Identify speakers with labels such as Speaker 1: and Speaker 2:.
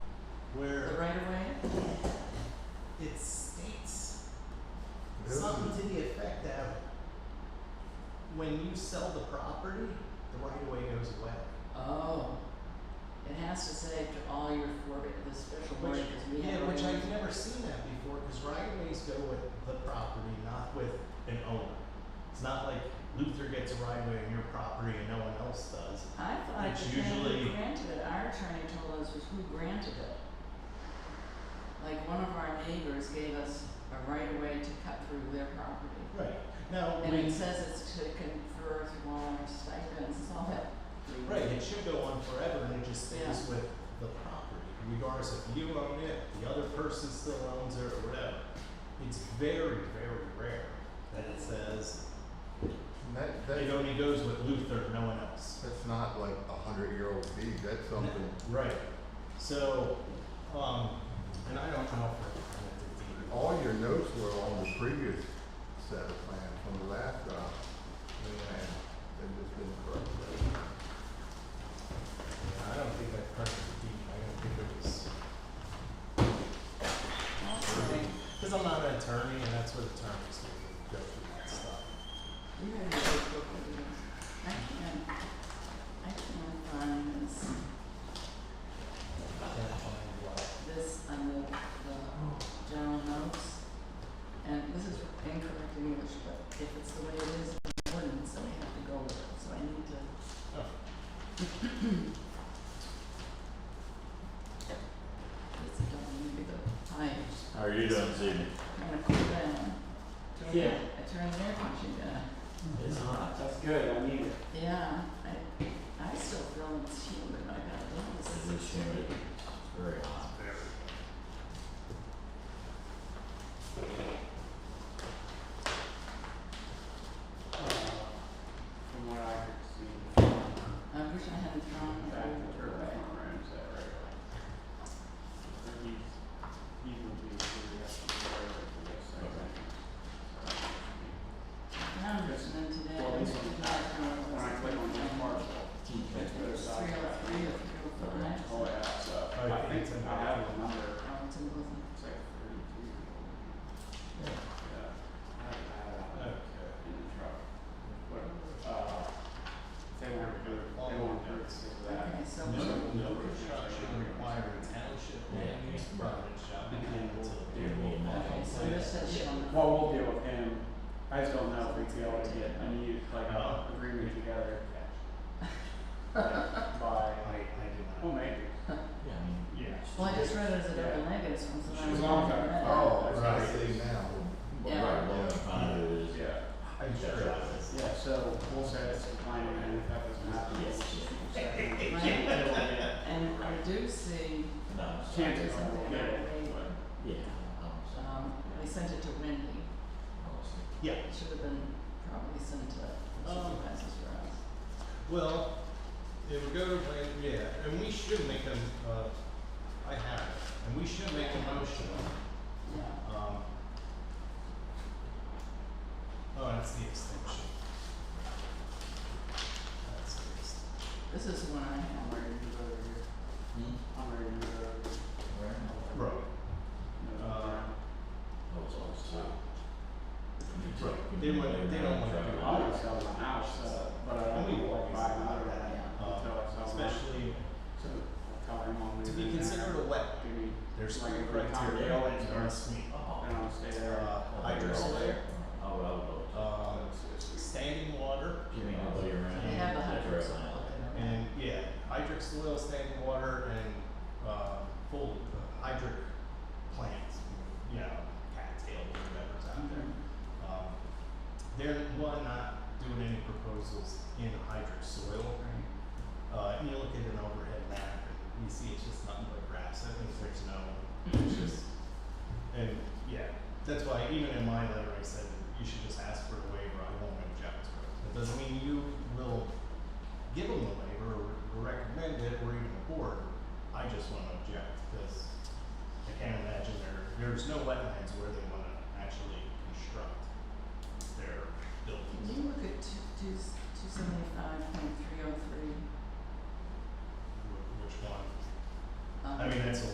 Speaker 1: the
Speaker 2: where
Speaker 1: right of way, it states something to the effect that when you sell the property, the right of way goes away.
Speaker 3: Oh. It has to say to all your for, the special
Speaker 1: Which-
Speaker 3: board, because we
Speaker 1: Yeah,
Speaker 3: have.
Speaker 1: which
Speaker 3: only-
Speaker 1: I've never seen that before, cause right of ways go with the property, not with an owner. It's not like Luther gets a right of way on your property and no one else does.
Speaker 3: I thought
Speaker 1: It's
Speaker 3: the man who
Speaker 1: usually-
Speaker 3: granted it, our attorney told us was who granted it. Like one of our neighbors gave us a right of way to cut through their property.
Speaker 1: Right. Now,
Speaker 3: And
Speaker 1: when,
Speaker 3: it says it's to confer through all our stipends, it's all that.
Speaker 1: right, it should go on forever and it just stays
Speaker 3: Yeah.
Speaker 1: with the property, regardless if you own it, the other person still owns it or whatever. It's very, very rare that it says,
Speaker 4: That,
Speaker 1: it
Speaker 4: that,
Speaker 1: only goes with Luther, no one else.
Speaker 4: that's not like a hundred year old deed, that's something,
Speaker 1: Right. So, um, and I don't know if
Speaker 4: all your notes were on the previous set of plans from the last, uh, plan, they've just been corrected.
Speaker 1: I don't think I corrected the deed. I don't think it was.
Speaker 3: Also,
Speaker 1: Because I'm not an attorney, and that's what attorneys do. They go through that stuff.
Speaker 3: we have a big book of these. I can't, I can't find this,
Speaker 1: I can't find what.
Speaker 3: this on the, the general notes. And this is incorrect in English, but if it's the way it is in the ordinance, then we have to go with it, so I need to.
Speaker 1: Oh.
Speaker 3: It's a dumb, maybe the times.
Speaker 5: How are you doing this evening?
Speaker 3: I'm gonna cool down. Turn
Speaker 6: Yeah.
Speaker 3: that- I turn the air conditioning down.
Speaker 6: It's hot. That's good. I need it.
Speaker 3: Yeah, I, I still feel it's humid, I got those.
Speaker 5: It is humid, it's very hot.
Speaker 6: Uh, from what I could see.
Speaker 3: I wish I hadn't thrown
Speaker 6: In
Speaker 3: it
Speaker 6: fact, the
Speaker 3: over
Speaker 6: turtle
Speaker 3: the way.
Speaker 6: front room is that right away. But he's, he would be, he would have to be right away for this
Speaker 5: Okay.
Speaker 6: second.
Speaker 3: Now I'm listening today,
Speaker 6: Well,
Speaker 3: I
Speaker 6: this
Speaker 3: was
Speaker 6: one-
Speaker 3: talking
Speaker 6: When I click on that parcel, it's got a
Speaker 3: It's
Speaker 6: side
Speaker 3: three oh
Speaker 6: track.
Speaker 3: three or three oh five.
Speaker 6: Oh, yeah, so
Speaker 1: Oh,
Speaker 6: I think
Speaker 1: it's in
Speaker 6: I
Speaker 1: there.
Speaker 6: have a number.
Speaker 3: Oh, it's in Wilson.
Speaker 6: It's like thirty-two years old. Yeah. I have it
Speaker 1: Okay.
Speaker 6: in the truck. But, uh, they weren't good, they weren't good for that.
Speaker 3: Okay, so.
Speaker 1: No, no construction requiring township land
Speaker 5: Yeah.
Speaker 1: use permit shall be given to the
Speaker 6: Yeah.
Speaker 1: people.
Speaker 3: Okay, so this says shall not.
Speaker 6: Well, we'll deal with him. I just don't know if we'd be able to get a new, like,
Speaker 1: Oh.
Speaker 6: agreement together. Like, By,
Speaker 1: I, I do
Speaker 6: well,
Speaker 1: not.
Speaker 6: maybe.
Speaker 5: Yeah, I mean,
Speaker 1: Yeah.
Speaker 3: Well, I just read it as a double negative, so I'm.
Speaker 6: She was on that.
Speaker 4: Oh,
Speaker 6: Right.
Speaker 4: I see now.
Speaker 3: Yeah.
Speaker 5: right, well, in front of it is.
Speaker 6: Yeah,
Speaker 1: I'm sure it is.
Speaker 6: yeah, so we'll say it's declining and if that doesn't happen, we'll just. we'll say
Speaker 3: Right.
Speaker 6: we can't deal with it.
Speaker 3: Uh, And I do see,
Speaker 5: No, it's not.
Speaker 6: Chances are we'll get it, but
Speaker 5: Yeah. I'm sorry.
Speaker 3: um, we sent it to Wendy.
Speaker 5: I'll see.
Speaker 1: Yeah.
Speaker 3: It should have been probably sent to
Speaker 6: Oh.
Speaker 1: Um,
Speaker 3: supervisors for us.
Speaker 1: Well, it would go to, plan- yeah, and we should make a, uh, I have it, and we should make a motion.
Speaker 3: Yeah.
Speaker 1: Um, oh, that's the extension. That's the extension.
Speaker 3: This is one I
Speaker 6: I'm
Speaker 3: have.
Speaker 6: ready to go over here.
Speaker 5: Hmm?
Speaker 6: I'm ready to go over here.
Speaker 5: Where?
Speaker 1: Right.
Speaker 6: No, no,
Speaker 1: Uh,
Speaker 5: Oh, it's all south.
Speaker 1: Right. They wouldn't- they don't want to
Speaker 6: no.
Speaker 1: do
Speaker 6: I wanna sell my house, uh, but I don't
Speaker 1: Only
Speaker 6: want to buy another one
Speaker 3: Yeah.
Speaker 6: until I sell mine.
Speaker 1: Especially
Speaker 6: So, I'll tell him I'll
Speaker 1: to be
Speaker 6: leave it
Speaker 1: considered a wet,
Speaker 6: there. Give me
Speaker 1: there's
Speaker 6: Like
Speaker 1: three criteria
Speaker 6: a cocktail
Speaker 1: that
Speaker 6: and-
Speaker 1: are sweet.
Speaker 5: Oh.
Speaker 6: And I'll stay there.
Speaker 1: Uh, hydro layer,
Speaker 5: Oh, well, well,
Speaker 1: uh,
Speaker 6: It's-
Speaker 1: standing water,
Speaker 5: you mean all the way around?
Speaker 3: They have the
Speaker 5: That's
Speaker 3: hundreds.
Speaker 5: right, now.
Speaker 1: and yeah, hydric soil, standing water, and uh, full uh, hydric plants, you know, cattail or whatever's out there. Um, they're one not doing any proposals in hydric soil.
Speaker 3: Right.
Speaker 1: Uh, and you look at an overhead map, and you see it's just nothing but
Speaker 3: Mm-hmm. oh um, Uh-huh.